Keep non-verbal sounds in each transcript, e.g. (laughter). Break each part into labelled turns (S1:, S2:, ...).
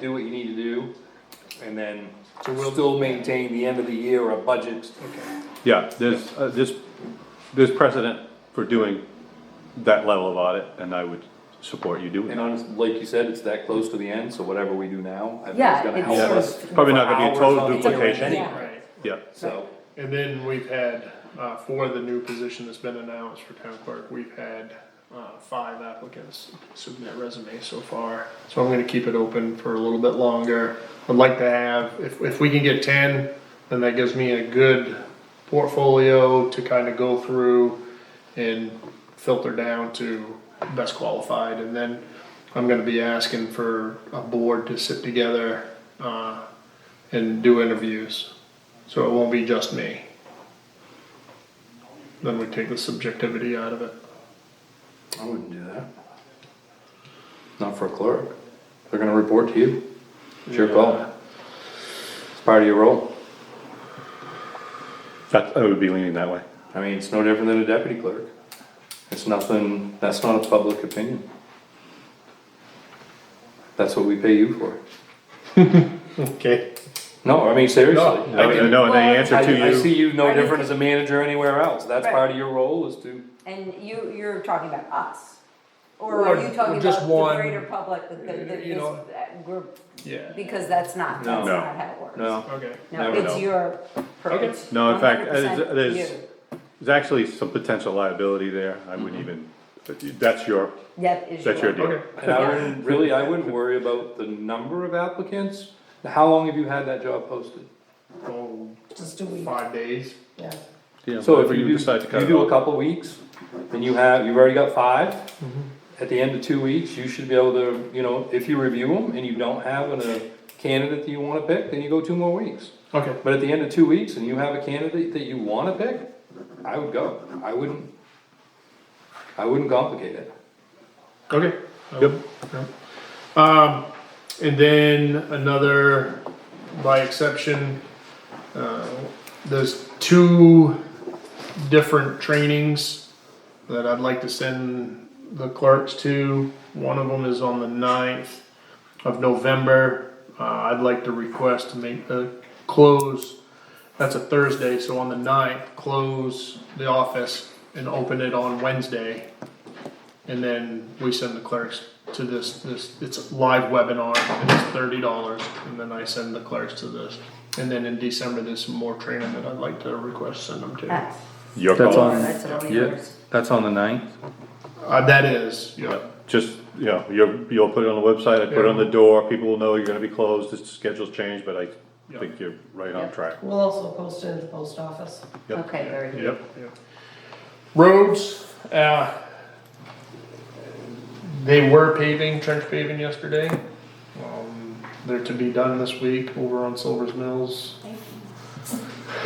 S1: do what you need to do, and then
S2: So we'll-
S1: still maintain the end of the year a budget.
S3: Yeah, there's, uh, this, there's precedent for doing that level of audit, and I would support you doing
S1: And
S3: it.
S1: honestly, like you said, it's that close to the end, so whatever we do now, I think
S4: Yeah,
S1: it's gonna
S4: it's
S1: help
S4: sort
S1: us.
S4: of-
S3: Probably not gonna be a
S1: for
S3: total
S1: hours on the year
S3: duplication.
S4: Yeah.
S2: Right,
S3: Yeah,
S1: So,
S2: and then we've had, uh, for the new position that's been announced for town clerk, we've had, uh, five applicants submit resumes so far. So I'm gonna keep it open for a little bit longer. I'd like to have, if, if we can get ten, then that gives me a good portfolio to kinda go through and filter down to best qualified, and then I'm gonna be asking for a board to sit together, uh, and do interviews. So it won't be just me. Then we take the subjectivity out of it.
S1: I wouldn't do that. Not for a clerk, they're gonna report to you, it's your call,
S2: Yeah.
S1: it's part of your role,
S3: that, I would be leaning that way.
S1: I mean, it's no different than a deputy clerk. It's nothing, that's not a public opinion. That's what we pay you for.
S2: Okay.
S1: No, I mean, seriously.
S3: I
S1: I mean,
S3: know, and they answer
S1: I, I
S3: to you,
S1: see you no
S4: I mean-
S1: different as a manager anywhere else, that's
S4: Right.
S1: part of your role is to,
S4: And you, you're talking about us, or are
S2: Or-
S4: you talking
S2: or just
S4: about
S2: one,
S4: the greater public, the, the, the,
S2: you know.
S4: this- that group?
S2: Yeah.
S4: Because that's
S1: No.
S4: not, that's
S3: No.
S4: not how it works.
S1: no.
S2: Okay.
S4: No,
S1: Never
S3: know.
S4: it's your,
S2: Okay.
S4: it's
S3: No, in fact,
S4: 100%
S3: it is- it is-
S4: you.
S3: there's actually some potential liability there, I wouldn't even, but you- that's your,
S4: That is
S3: that's your
S4: deal.
S3: deal.
S2: Okay.
S1: And I wouldn't,
S4: (laughs)
S1: really, I wouldn't worry about the number of applicants. How long have you had that job posted?
S2: Well,
S4: Just do we,
S2: Oh, five days.
S4: yeah.
S3: Yeah,
S1: So if
S3: whatever
S1: you do,
S3: decide to cut
S1: you
S3: it
S1: do a
S3: off.
S1: couple weeks, and you have, you've already got five,
S4: Mm-hmm.
S1: at the end of two weeks, you should be able to, you know, if you review them and you don't have an, a candidate that you wanna pick, then you go two more weeks.
S2: Okay.
S1: But at the end of two weeks, and you have a candidate that you wanna pick, I would go, I wouldn't, I wouldn't complicate it.
S2: Okay.
S3: Yep.
S2: Yep. Um, and then another, by exception, uh, there's two different trainings that I'd like to send the clerks to. One of them is on the 9th of November. Uh, I'd like to request to make the close, that's a Thursday, so on the 9th, close the office and open it on Wednesday. And then we send the clerks to this, this, it's live webinar, and it's thirty dollars, and then I send the clerks to this. And then in December, there's some more training that I'd like to request send them to.
S4: That's,
S3: Your
S5: That's
S3: call,
S5: on-
S4: that's all we
S5: Yeah, that's on the ninth.
S2: Uh, that is, yeah,
S3: just, you know, you're, you'll put it on the website, I put it on the door, people will know you're gonna be closed, the schedule's changed, but I
S2: Yeah.
S3: think you're right on track.
S6: We'll also post it at the post office.
S3: Yep.
S4: Okay, very good.
S3: Yep.
S2: roads, uh, they were paving, trench paving yesterday. Um, They're to be done this week over on Silver's Mills.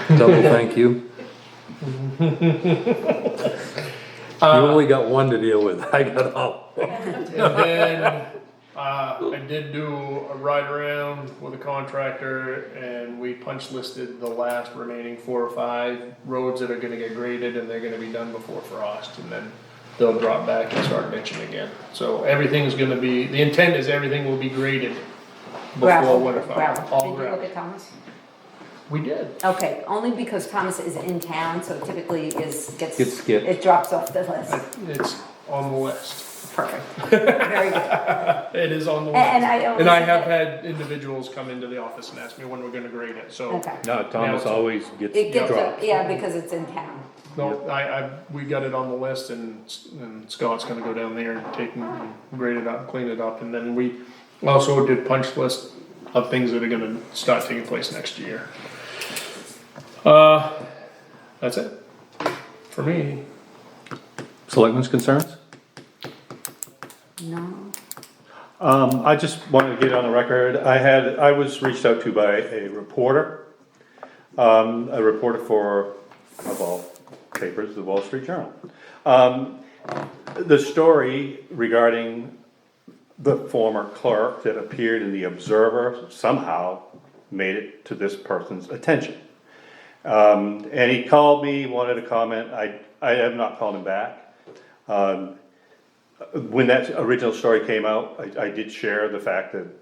S5: Double thank you. You only got one to deal with, I got all.
S2: (laughs) And then, uh, I did do a ride around with a contractor and we punch listed the last remaining four or five roads that are gonna get graded and they're gonna be done before frost and then they'll drop back and start ditching again. So everything's gonna be, the intent is everything will be graded before
S4: Gravel,
S2: winter
S4: gravel.
S2: fire, all
S4: Did you look
S2: gravel.
S4: at Thomas?
S2: We did.
S4: Okay, only because Thomas is in town, so typically is, gets.
S5: Gets skipped.
S4: It drops off the list.
S2: It's on the list.
S4: Perfect.
S2: (laughs)
S4: Very good.
S2: It is on the list.
S4: And I always.
S2: And I have had individuals come into the office and ask me when we're gonna grade it, so.
S4: Okay.
S3: No, Thomas always gets
S4: It gets,
S3: dropped.
S4: up, yeah, because it's in town.
S2: No, I, I, we got it on the list and, S- and Scott's gonna go down there and take and grade it up, clean it up, and then we also did punch list of things that are gonna start taking place next year. Uh, that's it, for me.
S3: Selectmen's concerns?
S4: No.
S3: Um, I just wanted to get on the record, I had, I was reached out to by a reporter, um, a reporter for, of all papers, the Wall Street Journal. Um, the story regarding the former clerk that appeared in the Observer somehow made it to this person's attention. Um, and he called me, wanted to comment, I, I have not called him back. Um, when that original story came out, I, I did share the fact that